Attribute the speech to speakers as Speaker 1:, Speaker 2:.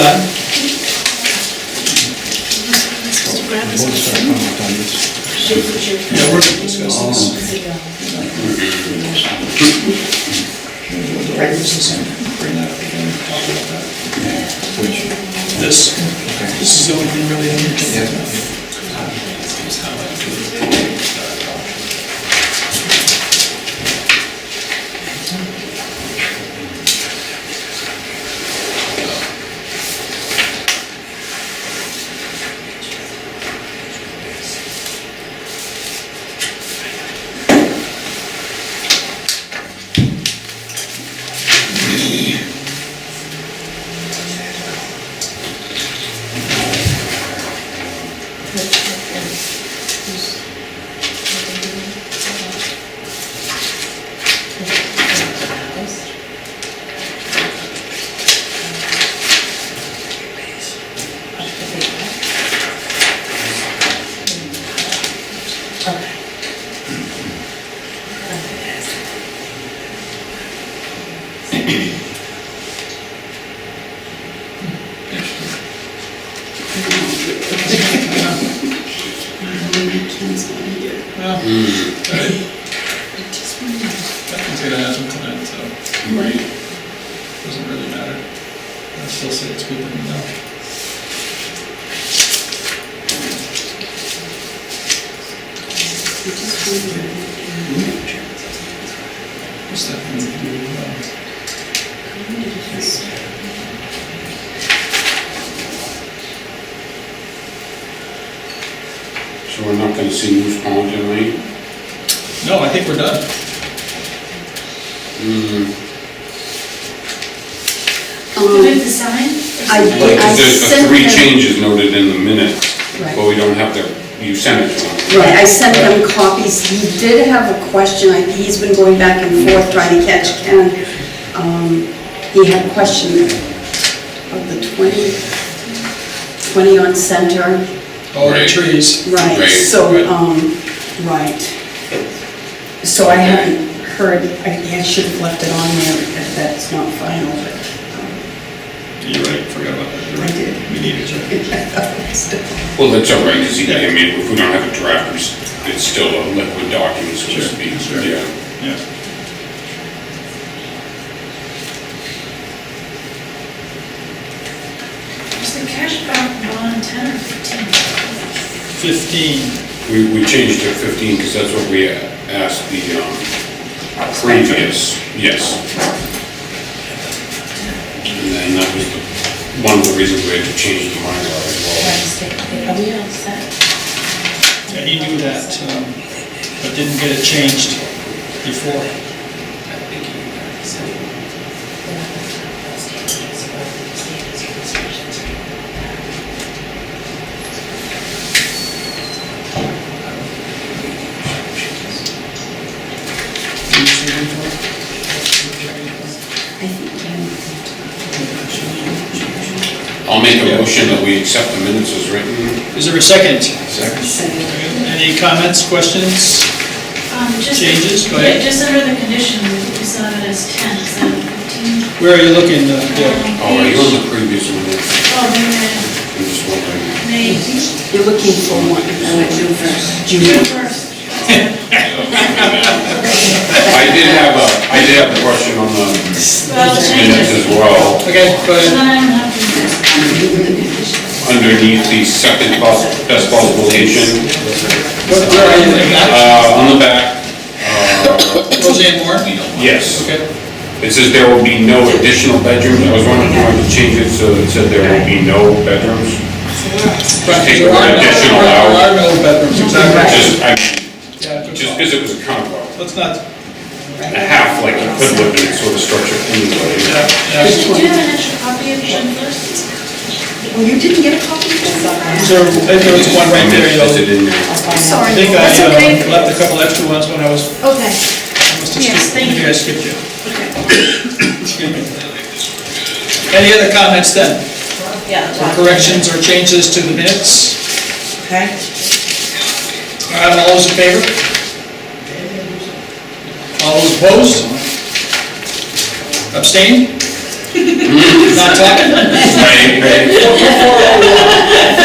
Speaker 1: Chips, chips.
Speaker 2: Yeah, we're gonna discuss this.
Speaker 1: Sit down.
Speaker 2: Bring this in, bring that up again, talk about that. This, this is the only thing really on your agenda.
Speaker 3: Nothing's gonna happen tonight, so. Doesn't really matter. I still say it's good that we know. What's that thing to do with, um,
Speaker 4: So we're not gonna see Moose Pond tonight?
Speaker 3: No, I think we're done.
Speaker 1: Did you sign?
Speaker 5: I,
Speaker 4: Like,
Speaker 5: I
Speaker 4: there's the
Speaker 5: sent
Speaker 4: three
Speaker 5: them,
Speaker 4: changes noted in the minutes,
Speaker 5: Right.
Speaker 4: but we don't have to, you sent it to them.
Speaker 5: right, I sent them copies. He did have a question, I- he's been going back and forth trying to catch Ken. Um, He had a question of the 20, 20 on center,
Speaker 3: Oh, the
Speaker 4: Right.
Speaker 3: trees.
Speaker 5: right,
Speaker 4: Right.
Speaker 5: so,
Speaker 3: Right.
Speaker 5: um, right. So I haven't heard, I I should have left it on there if that's not final, but um,
Speaker 3: You're right, forgot about that. You're
Speaker 5: I
Speaker 3: right.
Speaker 5: did.
Speaker 3: We need it, right?
Speaker 4: Well, that's all right, because I mean, if we don't have a draft, it's- it's still a liquid document, so to
Speaker 3: Sure,
Speaker 4: speak.
Speaker 3: sure.
Speaker 4: Yeah.
Speaker 3: Yeah.
Speaker 1: Is the cash bond bond ten or fifteen?
Speaker 3: Fifteen.
Speaker 4: We, we changed it to fifteen, because that's what we asked the, um, previous, yes. And then that was the- one of the reasons we had to change the Mylar as
Speaker 1: Are we all set?
Speaker 3: Yeah, he knew that, um, but didn't get it changed before.
Speaker 5: I think Ken
Speaker 4: well. I'll make a motion that we accept the minutes as written.
Speaker 3: Is there a second?
Speaker 5: sent it.
Speaker 3: Any comments, questions?
Speaker 1: Um, just-
Speaker 3: Changes, go ahead.
Speaker 1: Yeah, Just under the conditions, we saw it as ten, is that fifteen?
Speaker 3: Where are you looking, uh, Deb?
Speaker 4: Oh, are you on the previous one?
Speaker 1: Oh, then,
Speaker 4: I'm just wondering.
Speaker 1: uh, May, June
Speaker 5: You're looking for one, uh, June first.
Speaker 1: first.
Speaker 4: I did have a, I did have a question on the minutes
Speaker 1: Well, the changes.
Speaker 4: as well,
Speaker 3: Okay, go
Speaker 1: So
Speaker 3: ahead.
Speaker 1: then I don't have to,
Speaker 4: underneath the second pos- best possible location,
Speaker 3: What- Where are you looking at?
Speaker 4: uh, on the back. uh,
Speaker 3: Roseanne Moore?
Speaker 4: Yes,
Speaker 3: Okay.
Speaker 4: it says there will be no additional bedrooms, I was wondering if you wanted to change it, so it said there will be no bedrooms. Just take the
Speaker 3: There are
Speaker 4: word
Speaker 3: no-
Speaker 4: additional
Speaker 3: There
Speaker 4: out,
Speaker 3: are no bedrooms, exactly.
Speaker 4: just, I,
Speaker 3: Yeah,
Speaker 4: just
Speaker 3: good call.
Speaker 4: because it was a kind of a-
Speaker 3: Let's not,
Speaker 4: a half, like, a could live in sort of structure anyway.
Speaker 3: yeah, yeah.
Speaker 1: did you have an extra copy of June first?
Speaker 5: Well, you didn't get a copy of this?
Speaker 3: So, I think there was one right there, you
Speaker 4: Is it
Speaker 3: know.
Speaker 4: in there?
Speaker 3: I
Speaker 1: Sorry,
Speaker 3: think I
Speaker 1: that's okay.
Speaker 3: uh, left a couple extra ones when I was, I
Speaker 1: Okay,
Speaker 3: must have
Speaker 1: Yes,
Speaker 3: skipped,
Speaker 1: thank
Speaker 3: maybe
Speaker 1: you.
Speaker 3: I skipped you.
Speaker 1: okay.
Speaker 3: Excuse me. Any other comments then?
Speaker 1: Yeah.
Speaker 3: Or corrections or changes to the minutes?
Speaker 5: Okay.
Speaker 3: All right, All those in favor? All those opposed? Abstain? Not talking?
Speaker 4: Right, right.